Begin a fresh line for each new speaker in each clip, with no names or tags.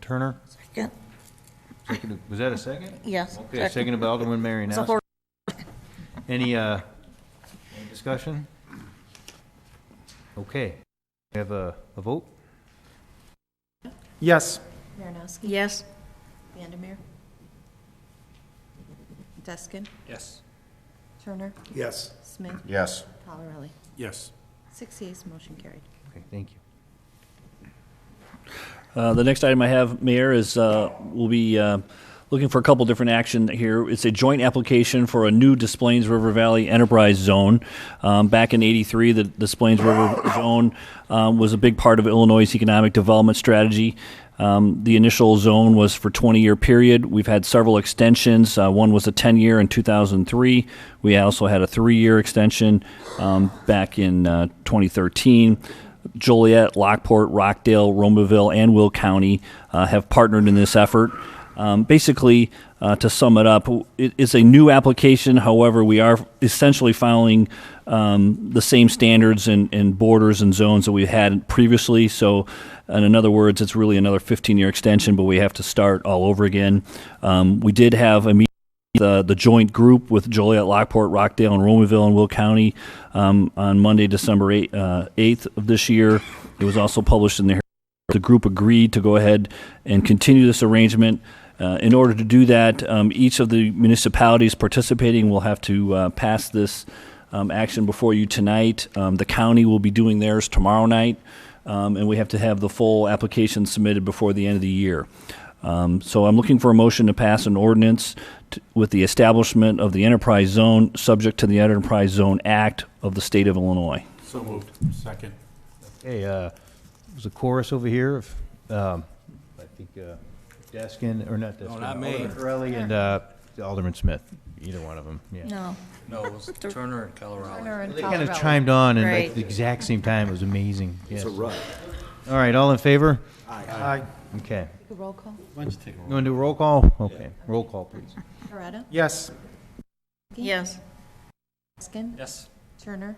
Turner?
Second.
Seconded- Was that a second?
Yes.
Okay, seconded by Alderman
It's a
Marinowski.
horse.
Any, uh, any discussion? Okay. We have a, a vote?
Yes.
Marinowski.
Yes.
Vandermeer. Deskin.
Yes.
Turner.
Yes.
Smith.
Yes.
Colorelli.
Yes.
Six yeas, motion carried.
Okay, thank you.
Uh, The next item I have, Mayor, is uh, we'll be uh, looking for a couple different action here. It's a joint application for a new Des Plaines River Valley Enterprise Zone. Um, Back in '83, the Des Plaines River Zone um, was a big part of Illinois' economic development strategy. Um, The initial zone was for 20-year period. We've had several extensions. Uh, One was a 10-year in 2003. We also had a three-year extension um, back in uh, 2013. Joliet, Lockport, Rockdale, Romaville, and Will County uh, have partnered in this effort. Um, basically, uh, to sum it up, it, it's a new application. However, we are essentially following um, the same standards and, and borders and zones that we had previously. So, and in other words, it's really another 15 year extension, but we have to start all over again. Um, we did have a meeting uh, the, the joint group with Joliet, Lockport, Rockdale, and Romaville and Will County um, on Monday, December 8, uh, 8th of this year. It was also published in the Herald. the group agreed to go ahead and continue this arrangement. Uh, in order to do that, um, each of the municipalities participating will have to uh, pass this um, action before you tonight. Um, the county will be doing theirs tomorrow night, um, and we have to have the full application submitted before the end of the year. Um, so I'm looking for a motion to pass an ordinance t- with the establishment of the enterprise zone, subject to the Enterprise Zone Act of the state of Illinois.
So moved. Second.
Hey, uh, there's a chorus over here of, um, I think, uh, Deskin, or not Deskin.
No, not me.
Alderman Corelli and, uh, Alderman Smith, either one of them, yeah.
No.
No, it was Turner and Colorado.
Turner and
They kind of
Colorelli.
chimed on and
Right.
at the exact same time. It was amazing. Yes. All
rush.
right, all in favor?
Aye.
Okay.
Roll call.
You want to do a roll call? Okay, roll call, please.
Coretta.
Yes.
Yes.
Deskin.
Yes.
Turner.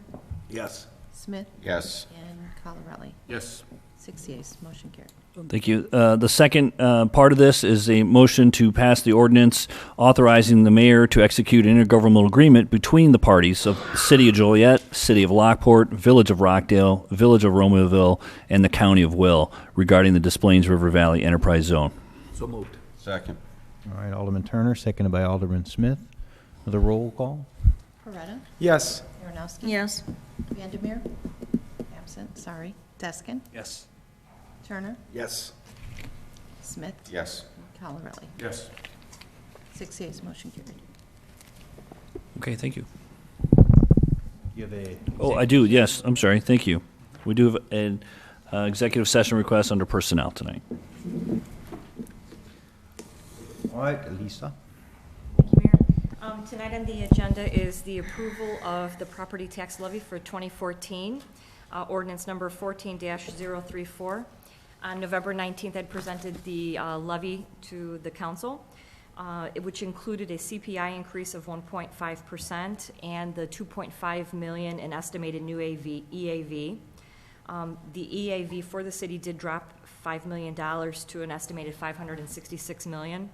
Yes.
Smith.
Yes.
And Colorelli.
Yes.
Six yeas, motion carried.
Thank you. Uh, The second uh, part of this is a motion to pass the ordinance authorizing the mayor to execute an intergovernmental agreement between the parties of the City of Joliet, City of Lockport, Village of Rockdale, Village of Romeoville, and the County of Will regarding the Des Plaines River Valley Enterprise Zone.
So moved.
Second.
All right, Alderman Turner, seconded by Alderman Smith. Another roll call?
Coretta.
Yes.
Marinowski.
Yes.
Vandermeer. Absent, sorry. Deskin.
Yes.
Turner.
Yes.
Smith.
Yes.
and Colorelli.
Yes.
Six yeas, motion carried.
Okay, thank you.
You have a.
Oh, I do, yes, I'm sorry, thank you. We do have an uh, executive session request under personnel tonight.
All right, Lisa.
Thank you, Mayor. Um, Tonight on the agenda is the approval of the property tax levy for 2014, uh, ordinance number 14-034. On November 19th, I presented the uh, levy to the council, uh, which included a CPI increase of 1.5% and the 2.5 million in estimated new AV, EAV. Um, The EAV for the city did drop $5 million to an estimated 566 million.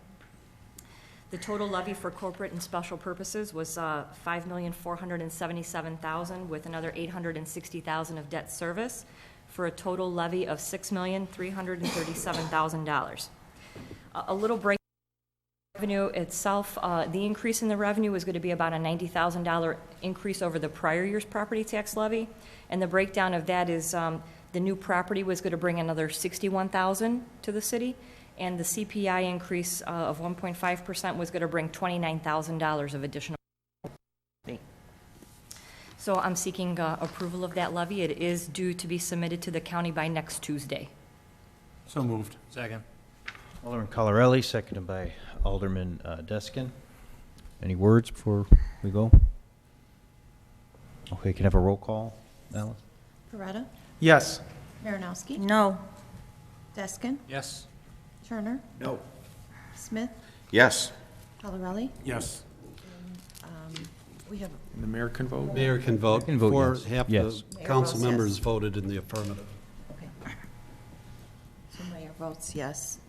The total levy for corporate and special purposes was uh, $5,477,000 with another $860,000 of debt service for a total levy of $6,337,000. A- A little break revenue itself, uh, the increase in the revenue is going to be about a $90,000 increase over the prior year's property tax levy. And the breakdown of that is um, the new property was going to bring another $61,000 to the city, and the CPI increase uh, of 1.5% was going to bring $29,000 of additional. levy. So I'm seeking uh, approval of that levy. It is due to be submitted to the county by next Tuesday.
So moved.
Second.
Alderman Colarelli, seconded by Alderman uh, Deskin. Any words before we go? Okay, can I have a roll call, Alice?
Coretta.
Yes.
Marinowski.
No.
Deskin.
Yes.
Turner.
No.
Smith.
Yes.
Colorelli.
Yes.
We have
The mayor can vote?
Mayor can vote.
Can vote
Four-
yes.
Half
Yes.
the council
Mayor votes yes.
members voted in the affirmative.
Okay. So Mayor votes yes.